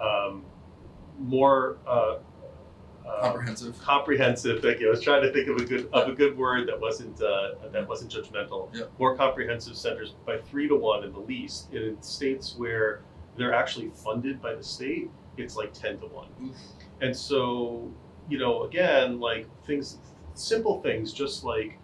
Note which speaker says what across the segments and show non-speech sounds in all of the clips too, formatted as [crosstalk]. Speaker 1: um, more uh, uh,
Speaker 2: comprehensive.
Speaker 1: comprehensive. Thank you. I was trying to think of a good of a good word that wasn't uh, that wasn't judgmental.
Speaker 2: Yeah.
Speaker 1: More comprehensive centers by three to one in the least. And in states where they're actually funded by the state, it's like ten to one.
Speaker 2: Oof.
Speaker 1: And so you know, again, like things, simple things, just like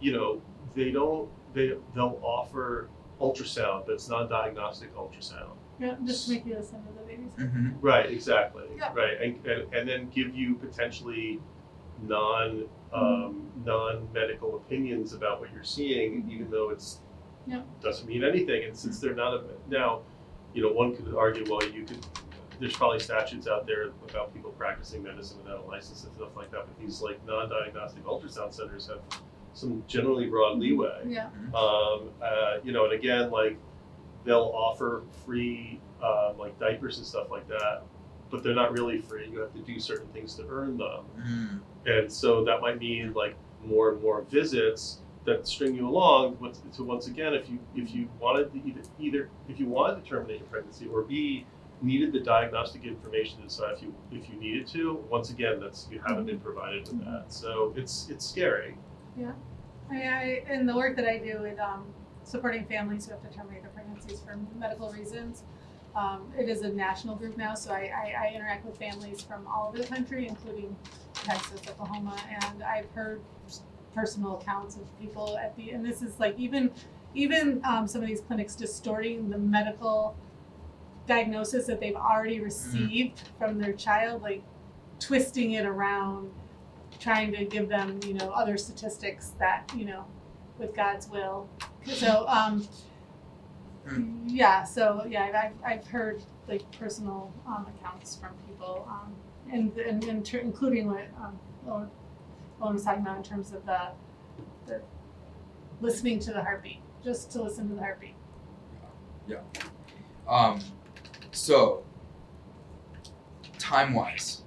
Speaker 1: you know, they don't they they'll offer ultrasound that's non-diagnostic ultrasound.
Speaker 3: Yeah, just make you listen to the babies.
Speaker 2: hmm
Speaker 1: Right, exactly.
Speaker 3: Yeah.
Speaker 1: Right, and, and, and then give you potentially non
Speaker 3: Mm-hmm.
Speaker 1: um, non medical opinions about what you're seeing, even though it's
Speaker 3: Yeah. Mm-hmm.
Speaker 1: doesn't mean anything. And since they're not a, now, you know, one could argue, well, you could. There's probably statutes out there about people practicing medicine without a license and stuff like that. But these like non-diagnostic ultrasound centers have some generally broad leeway.
Speaker 3: Yeah.
Speaker 1: Um, uh, you know, and again, like they'll offer free um, like diapers and stuff like that, but they're not really free. You have to do certain things to earn them,
Speaker 2: Mm.
Speaker 1: and so that might mean like more and more visits that string you along. Once- So once again, if you if you wanted to either, either if you wanted to terminate your pregnancy or B needed the diagnostic information to decide if you if you needed to. Once again, that's you haven't been provided with that, so it's it's scary.
Speaker 3: I, I in the work that I do with um, supporting families who have to terminate their pregnancies for medical reasons, um, it is a national group now. So I, I, I interact with families from all over the country, including Texas, Oklahoma, and I've heard personal accounts of people at the and this is like even even um, some of these clinics distorting the medical diagnosis that they've already received from their child, like twisting it around trying to give them, you know, other statistics that, you know, with God's will. So, um, [clears throat] yeah, so yeah, I've, I've heard like personal um, accounts from people, um, and, and, and ter- including what um, Owen Owen was talking about in terms of the, the listening to the heartbeat, just to listen to the heartbeat.
Speaker 2: Um, so time wise,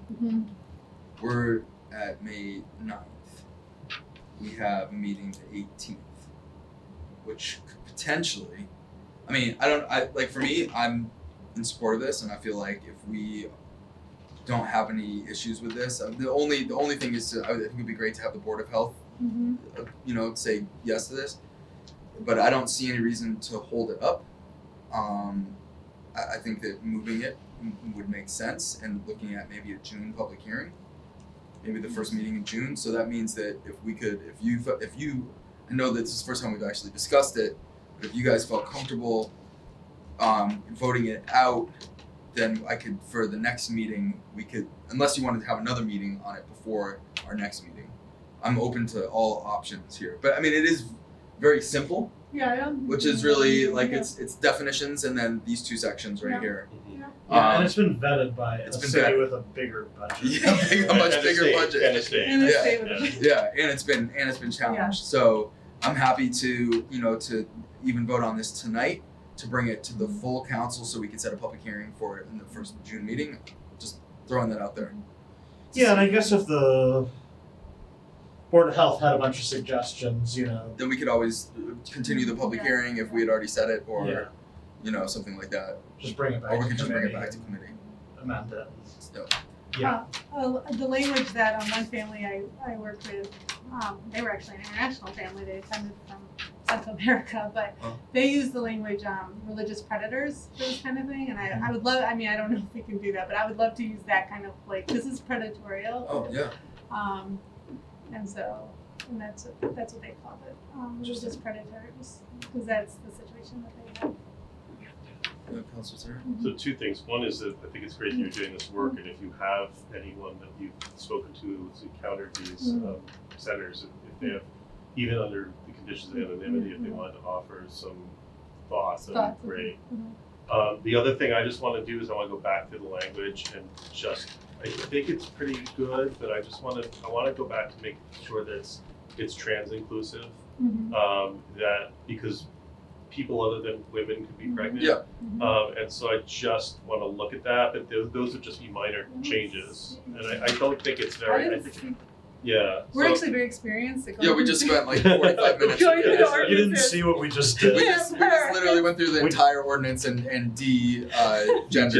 Speaker 2: we're at May 9th. We have a meeting the 18th, which could potentially. I mean, I don't. I like for me, I'm in support of this, and I feel like if we don't have any issues with this, uh, the only the only thing is to, I would- I think it'd be great to have the board of health
Speaker 3: Mm-hmm.
Speaker 2: uh, you know, say yes to this. But I don't see any reason to hold it up. Um, I, I think that moving it m- would make sense and looking at maybe a June public hearing, maybe the first meeting in June. So that means that if we could, if you, fe- if you, I know that this is the first time we've actually discussed it, but if you guys felt comfortable um, voting it out, then I could, for the next meeting, we could, unless you wanted to have another meeting on it before our next meeting. I'm open to all options here. But I mean, it is very simple,
Speaker 3: Yeah, I don't,
Speaker 2: which is really like
Speaker 3: Yeah.
Speaker 2: it's it's definitions and then these two sections right
Speaker 3: Yeah.
Speaker 1: [laughs]
Speaker 2: here. [laughs]
Speaker 4: Yeah,
Speaker 2: Um,
Speaker 4: and it's been vetted by
Speaker 2: it's
Speaker 4: a
Speaker 2: been
Speaker 4: city
Speaker 2: vetted.
Speaker 4: with a bigger budget.
Speaker 2: Yeah, big- a
Speaker 1: And
Speaker 2: much
Speaker 1: a
Speaker 2: bigger
Speaker 1: state,
Speaker 2: budget.
Speaker 1: And a state.
Speaker 3: And
Speaker 2: Yeah.
Speaker 3: it's stable.
Speaker 1: Yeah.
Speaker 2: Yeah, and it's been and it's been challenged.
Speaker 3: Yeah.
Speaker 2: So I'm happy to you know to even vote on this tonight to bring it to the
Speaker 3: Mm-hmm.
Speaker 2: full council so we can set a public hearing for it in the first June meeting. Just throwing that out there.
Speaker 4: Yeah, and I guess if the Board of Health had a bunch of suggestions, you know,
Speaker 2: Then we could always continue the public
Speaker 3: Yeah.
Speaker 2: hearing if we had already said it or
Speaker 4: yeah,
Speaker 2: you know something like that,
Speaker 4: just bring it back.
Speaker 2: or Oh, we
Speaker 4: to
Speaker 2: could just bring it
Speaker 4: committee
Speaker 2: back to committee.
Speaker 4: and Amend it.
Speaker 2: So,
Speaker 4: Yeah.
Speaker 3: Uh, the language that um, one family I, I worked with, um, they were actually an international family. They attended from South America, [laughs] but
Speaker 2: Oh.
Speaker 3: they use the language um, religious predators for this kind of thing. And
Speaker 2: Mm-hmm.
Speaker 3: I, I would love, I mean, I don't [laughs] know if we can do that, but I would love to use that kind of like, this is predatorial.
Speaker 2: oh yeah.
Speaker 3: Um, and so, and that's, what- that's what they called it, um, religious predators, because that's the situation that they have. Mm-hmm.
Speaker 2: Uh, Councilor Sarah?
Speaker 1: So two things. One is that I think it's great that you're doing this work, and if you have anyone that you've spoken to who's encountered these
Speaker 3: Mm.
Speaker 1: um, centers, if- if they have, even under the conditions of anonymity, if they wanted to offer some thoughts, that'd
Speaker 3: Mm-hmm. Thoughts,
Speaker 1: be great.
Speaker 3: mhm.
Speaker 1: Um, the other thing I just want to do is I want to go back to the language and just I think it's pretty good, but I just want to I want to go back to make sure that it's it's trans inclusive.
Speaker 3: Mhm.
Speaker 1: Um, that because people other than women could be
Speaker 3: Mhm.
Speaker 1: pregnant.
Speaker 2: Yeah.
Speaker 3: Mhm.
Speaker 1: Um, and so I just want to look at that, but those, those would just be minor changes. And I, I don't think it's
Speaker 3: I
Speaker 1: very, I
Speaker 3: didn't
Speaker 1: think,
Speaker 3: see-
Speaker 1: yeah.
Speaker 3: We're
Speaker 1: so-
Speaker 3: actually very experienced. at
Speaker 2: Yeah, we
Speaker 3: going
Speaker 2: just
Speaker 3: through-
Speaker 2: spent like 45 minutes.
Speaker 3: Going
Speaker 2: [laughs]
Speaker 3: through
Speaker 2: Yeah,
Speaker 3: the
Speaker 2: so
Speaker 4: You
Speaker 3: ordinance.
Speaker 4: didn't see what we just
Speaker 2: We
Speaker 4: did.
Speaker 2: just, we just literally went through the
Speaker 4: We-
Speaker 2: [laughs] entire ordinance and, and de uh, gender.